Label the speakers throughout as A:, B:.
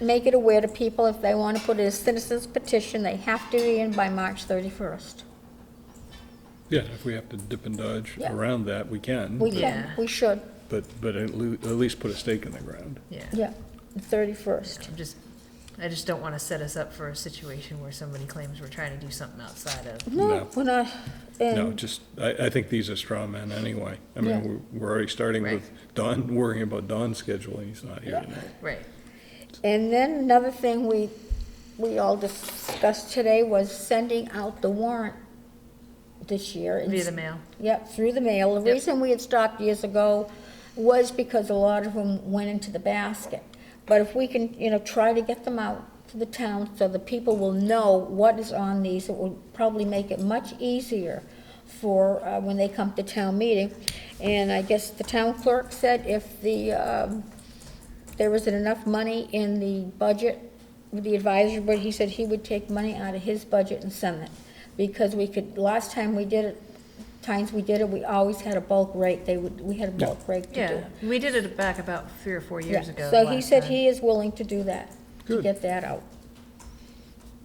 A: make it aware to people if they want to put in a citizen's petition, they have to be in by March 31st.
B: Yeah, if we have to dip and dodge
A: Yeah.
B: around that, we can.
A: We can,
B: but-
C: Yeah.
A: we should,
B: But, but at lea- at least put a stake in the ground.
C: yeah.
A: yeah, the 31st.
C: I'm just, I just don't want to set us up for a situation where somebody claims we're trying to do something outside of.
A: No,
B: No.
A: we're not,
B: No,
A: and,
B: just, I, I think these are straw men anyway. I
A: Yeah.
B: mean, we're- we're already starting with Don, worrying about Don's schedule, and he's not here tonight.
C: Right,
A: and then another thing we, we all discussed today was sending out the warrant this year. and
C: via the mail.
A: Yep, through the mail. The
C: Yep.
A: reason we had stopped years ago was because a lot of them went into the basket. But if we can, you know, try to get them out to the town so the people will know what is on these, it will probably make it much easier for, uh, when they come to town meeting. And I guess the town clerk said if the, um, there isn't enough money in the budget, with the advisory board, he said he would take money out of his budget and send it. Because we could, last time we did it, times we did it, we always had a bulk rate, they would, we had a bulk rate to do
C: Yeah,
A: it.
C: we did it back about three or four years
A: Yeah.
C: ago.
A: So he
C: last
A: said
C: time.
A: he is willing to do that, to
B: Good.
A: get that out.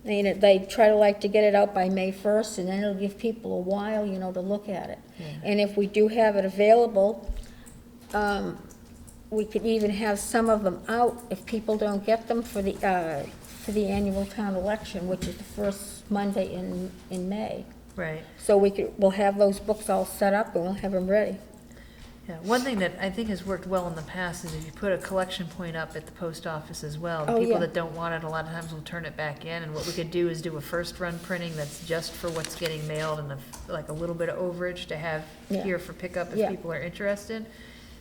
A: And it- they try to like to get it out by May first, and then it'll give people a while, you know, to look at it. And if we do have it available, um, we could even have some of them out if people don't get them for the, uh, for the annual town election, which is the first Monday in, in May.
C: Right.
A: So we could, we'll have those books all set up and we'll have them ready.
C: Yeah, one thing that I think has worked well in the past is if you put a collection point up at the post office as well, the
A: Oh, yeah.
C: people that don't want it, a lot of times will turn it back in, and what we could do is do a first run printing that's just for what's getting mailed and a f like a little bit of overage to have
A: Yeah.
C: here for pickup
A: Yeah.
C: if people are interested,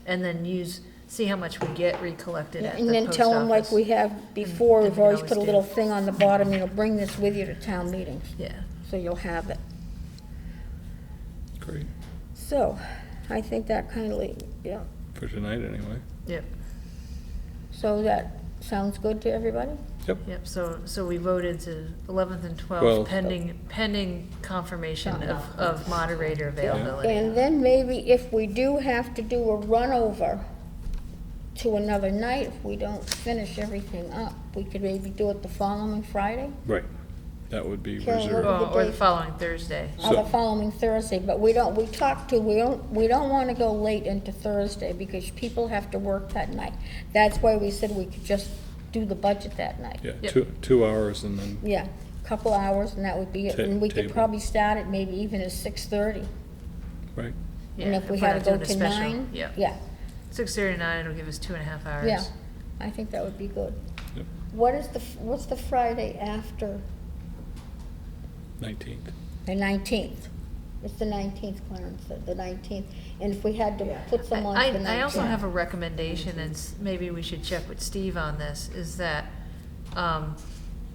C: and then use, see how much we get recollected at the
A: And then
C: post
A: tell them like
C: office.
A: we have before,
C: And-
A: we've
C: and we
A: always
C: always
A: put a
C: do.
A: little thing on the bottom, you know, bring this with you to town meetings,
C: Yeah,
A: so you'll have it.
B: Great,
A: So, I think that kindly, yeah,
B: for tonight, anyway.
C: yep,
A: so that sounds good to everybody?
B: Yep,
C: yep, so, so we voted to eleventh and
B: Well-
C: twelfth pending, pending confirmation of, of moderator availability.
A: And then maybe if we do have to do a run over to another night, if we don't finish everything up, we could maybe do it the following Friday?
B: right. That would be
A: Karen, what-
B: reserved.
C: Or or the following Thursday.
A: Or the
B: So-
A: following Thursday, but we don't, we talked to, we don't, we don't want to go late into Thursday because people have to work that night. That's why we said we could just do the budget that night.
B: Yeah,
C: Yep.
B: two, two hours and then,
A: Yeah, a couple hours and that would be it.
B: Ta-
A: And we could
B: table.
A: probably start it maybe even at six thirty.
B: right,
A: And
C: Yeah,
A: if we
C: we're
A: had
C: not
A: to go
C: doing a
A: to
C: special,
A: nine.
C: Yeah.
A: Yeah,
C: Six thirty to nine, it'll give us two and a half hours.
A: yeah. I think that would be good.
B: Yep.
A: What is the, f- what's the Friday after
B: nineteenth.
A: the nineteenth? It's the nineteenth, Clarence said, the nineteenth. And if we had to put
C: I-
A: someone
C: I-
A: on the nineteenth.
C: I also have a recommendation, and s- maybe we should check with Steve on this, is that, um,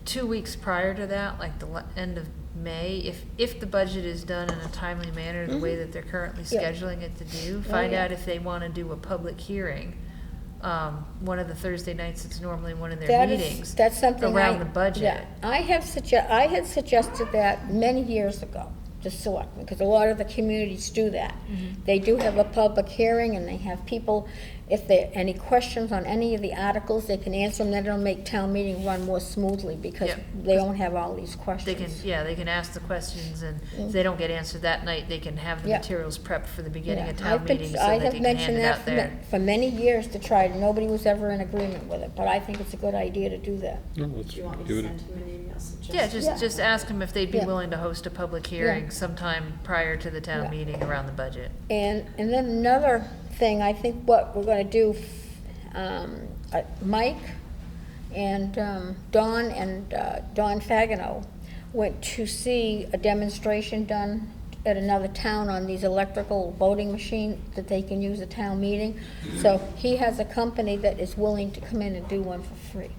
C: two weeks prior to that, like the le- end of May, if, if the budget is done in a timely manner, the way that they're currently
A: Mm-hmm. Yeah. Oh,
C: scheduling it to do, find
A: yeah.
C: out if they wanna do a public hearing, um, one of the Thursday nights, it's normally one of their
A: That is-
C: meetings.
A: That's something I.
C: Around the budget.
A: yeah. I have sugge, I had suggested that many years ago, to selectmen, because a lot of the communities do that.
C: Mm-hmm.
A: They do have a public hearing, and they have people, if there are any questions on any of the articles, they can answer them, then it'll make town meeting run more smoothly, because
C: Yeah.
A: they don't have all these
C: They
A: questions.
C: can, yeah, they can ask the questions, and if they don't get answered that night, they can have the
A: Yeah.
C: materials prepped for the beginning
A: Yeah,
C: of
A: I've
C: town
A: been-
C: meeting,
A: I
C: so
A: have
C: that they can hand
A: mentioned
C: it
A: that
C: out
A: for ma-
C: there.
A: For many years to try, nobody was ever in agreement with it, but I think it's a good idea to do that.
B: No, let's
D: Do you want me
B: do
D: to
B: it.
D: send him an email suggestion?
C: Yeah,
A: Yeah.
C: just, just ask them if they'd be
A: Yeah.
C: willing to host a public
A: Yeah.
C: hearing sometime prior to the
A: Yeah.
C: town meeting around the budget.
A: And, and then another thing, I think what we're gonna do, um, uh, Mike and, um, Don and, uh, Don Fagino went to see a demonstration done at another town on these electrical voting machine that they can use at town meeting. So he has a company that is willing to come in and do one for free.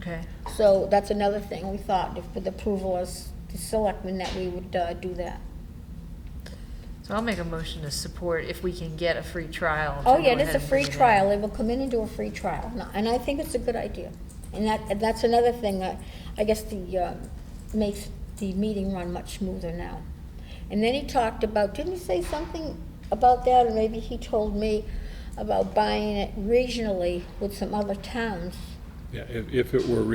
C: Okay,
A: So that's another thing we thought, if with approval as the selectmen, that we would, uh, do that.
C: so I'll make a motion to support if we can get a free trial. to
A: Oh,
C: go
A: yeah, it is
C: ahead
A: a
C: and
A: free
C: do that.
A: trial, they will come in and do a free trial, No, and I think it's a good idea. And that, and that's another thing that, I guess the, uh, makes the meeting run much smoother now. And then he talked about, didn't he say something about that, or maybe he told me about buying it regionally with some other towns
B: Yeah, if, if it were